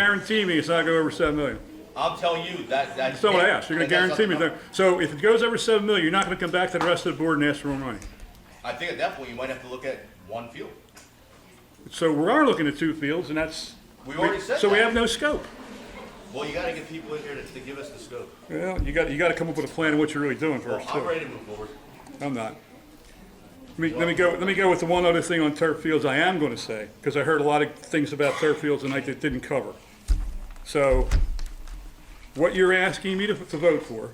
guarantee me it's not going over seven million. I'll tell you, that, that's. That's not what I asked. You're going to I think that's guarantee me not- that. So if it goes over seven million, you're not going to come back to the rest of the board and ask for more money. I think at that point, you might have to look at one field. So we are looking at two fields, and that's. We already said So we that. have no scope. Well, you gotta get people in here to, to give us the scope. Well, you got, you got to come up with a plan of what you're really doing Well, first, I'm too. ready to move forward. I'm not. Let me, let me go, let me go with the one other thing on turf fields I am going to say, because I heard a lot of things about turf fields tonight that didn't cover. So what you're asking me to, to vote for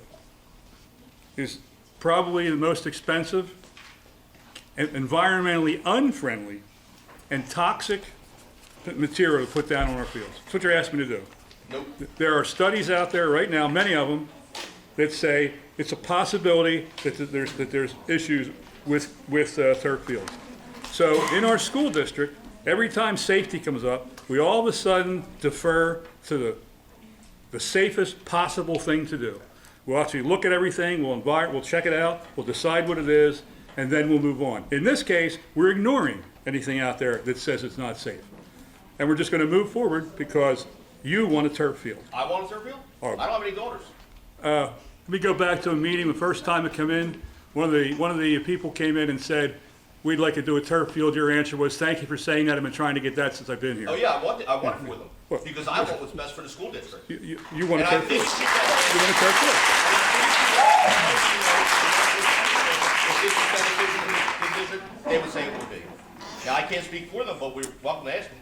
is probably the most expensive, and environmentally unfriendly, and toxic material to put down on our fields. That's what you're asking me to do. Nope, There are studies out there right now, many of them, that say it's a possibility that th- there's, that there's issues with, with uh, turf fields. So in our school district, every time safety comes up, we all of a sudden defer to the, the safest possible thing to do. We'll actually look at everything, we'll envi, we'll check it out, we'll decide what it is, and then we'll move on. In this case, we're ignoring anything out there that says it's not safe. And we're just gonna move forward because you want a turf field. I want a turf field. I Alright. don't have any daughters. Let me go back to a meeting, the first time I come in, one of the, one of the people came in and said, we'd like to do a turf field. Your answer was, thank you for saying that. I've been trying to get that since I've been Oh, here. yeah, I want, it- I want it for them, Well- because I want what's best for the school district. You, you- you want a And I turf think field? she said- You want a turf field? They would say it would be. Now, I can't speak for them, but we're welcome to ask them.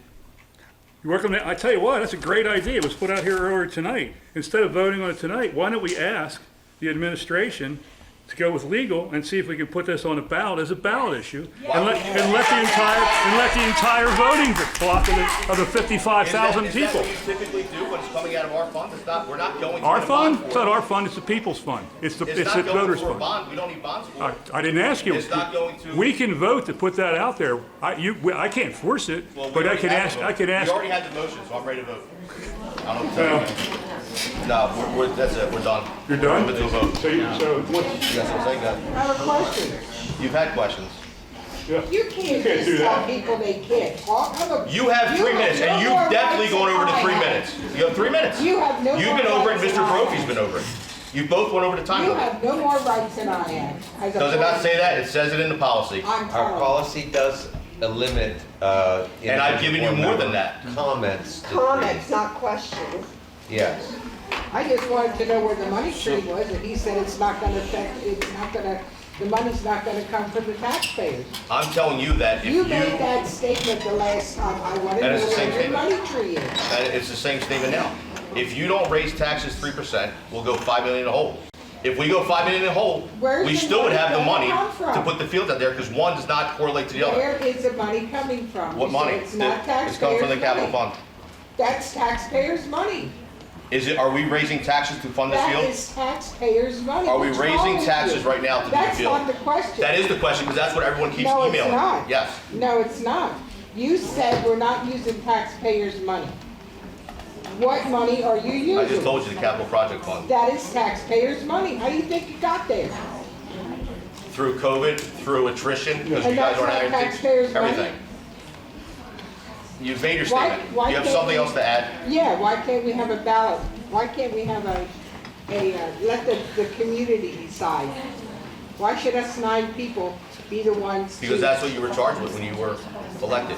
You work on that, I tell you what, that's a great idea, it was put out here earlier tonight. Instead of voting on it tonight, why don't we ask the administration to go with legal and see if we can put this on a ballot as a ballot issue? And let, and let the entire, and let the entire voting block of the, of the fifty-five Is that- thousand Is that people. what you typically do when it's coming out of our fund? It's not, we're not going to. Our get a bond fund, for it's it. not our fund, it's the people's fund, it's the, It's it's the not going voters' for a fund. bond, we don't need bonds for I, it. I didn't ask you. It's not going to- We can vote to put that out there, I, you, we- I can't force it, Well, we but I already can had the ask, vote. I can ask. We already had the motion, so I'm ready to vote. I don't tell you. No, we're, we're, that's it, we're done. You're done? We're into a vote. So, you- so what's? That's what I'm saying, guys. I have a question. You've had questions. You can't can't do just tell that. people they can't talk. I'm a- You have three minutes, and no you've more definitely rights gone than over to I three have. minutes. You have three minutes. You have no You've more been over it, rights Mr. than I have. Brophy's been over it. You both went over the time You limit. have no more rights than I have. as a Does it not person. say that? It says it in the policy. I'm Our telling policy does eliminate, uh. And I've given you more than that. Comments. to Comments, not questions. three. Yes. you. I just wanted to know where the money tree was, and he said it's not gonna affect, it's not gonna, the money's not gonna come from the taxpayers. I'm telling you that if you, You made that statement the last time. I wanted to That know is the same where your money tree is. and it's the same statement now. If you don't raise taxes three percent, we'll go five million in the hole. If we go five million in the hole, Where's we the still would money have the gonna money come to from? put the fields out there because one does not correlate to the other. Where is the money coming from? What You said money? It's not It's coming from the taxpayers' capital money. fund. That's taxpayers' money. Is it, are we raising taxes to fund this That field? is taxpayers' money. Are we What's raising wrong with taxes you? right now to do the That's field? not the question. That is the question because that's what everyone keeps No, it's emailing. not. Yes. No, it's not. You said we're not using taxpayers' money. What money are you using? I just told you the capital project fund. That is taxpayers' money. How do you think you got there? Through COVID, through attrition, because you And guys that's aren't not having taxpayers' anything, money? everything. You've made your Why- statement. why You have can't something we- else to add? Yeah, why can't we have a ballot? Why can't we have a, a, uh, let the, the community decide? Why should us nine people be the ones to? Because that's what you were charged with when you were elected.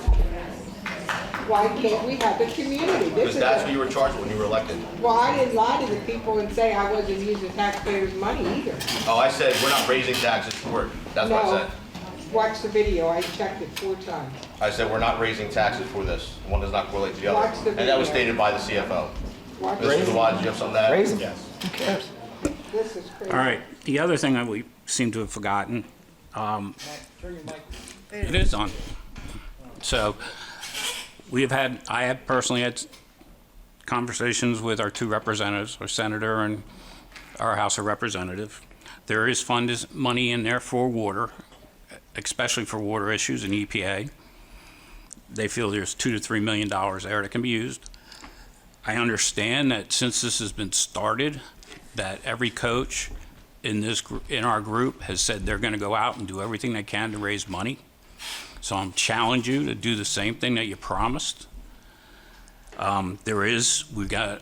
Why can't we have the community? This Because is that's a- what you were charged with when you were elected. Well, I didn't lie to the people and say I wasn't using taxpayers' money either. Oh, I said, we're not raising taxes for it. That's what I No. said. Watch the video, I checked it four times. I said, we're not raising taxes for this. One does not correlate to the Watch other. the And that was video. stated by the CFO. Watch Mr. it, Dewan, do you have something to add? Raise 'em. Yes. this is crazy. All right, the other thing that we seem to have forgotten, um, it is on. So, we have had, I have personally had conversations with our two representatives, our senator and our House of Representative. There is fund is money in there for water, especially for water issues and EPA. They feel there's two to three million dollars there that can be used. I understand that since this has been started, that every coach in this, gr- in our group has said they're going to go out and do everything they can to raise money. So I'm challenge you to do the same thing that you promised. Um, There is, we've got